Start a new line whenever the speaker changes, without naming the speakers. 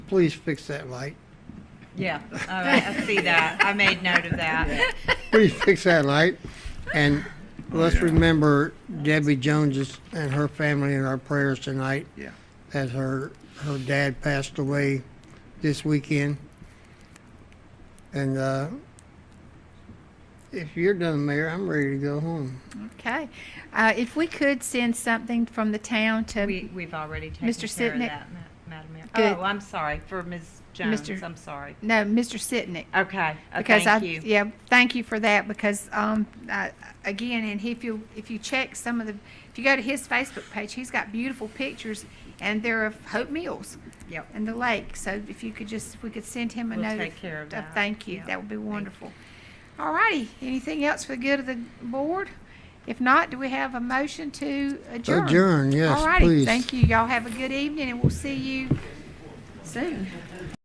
please fix that light.
Yeah, all right, I see that. I made note of that.
Please fix that light. And let's remember Debbie Jones and her family in our prayers tonight.
Yeah.
As her, her dad passed away this weekend. And, uh, if you're done, Mayor, I'm ready to go home.
Okay. Uh, If we could send something from the town to,
We, we've already taken
Mr.
care of
Sitnick?
that, Ma- Madam Mayor.
Good.
Oh, I'm sorry, for Ms. Jones,
Mr.
I'm sorry.
no, Mr. Sitnick.
Okay, uh,
Because I,
thank you.
yeah, thank you for that because, um, I- again, and if you, if you check some of the, if you go to his Facebook page, he's got beautiful pictures and they're of Hope Mills
Yep.
and the lake. So if you could just, if we could send him a
We'll
note.
take care of that.
Thank you.
Yeah.
That would be
Thank you.
wonderful. All righty. Anything else for the good of the board? If not, do we have a motion to adjourn?
Adjourn, yes,
All righty.
please.
Thank you. Y'all have a good evening and we'll see you soon.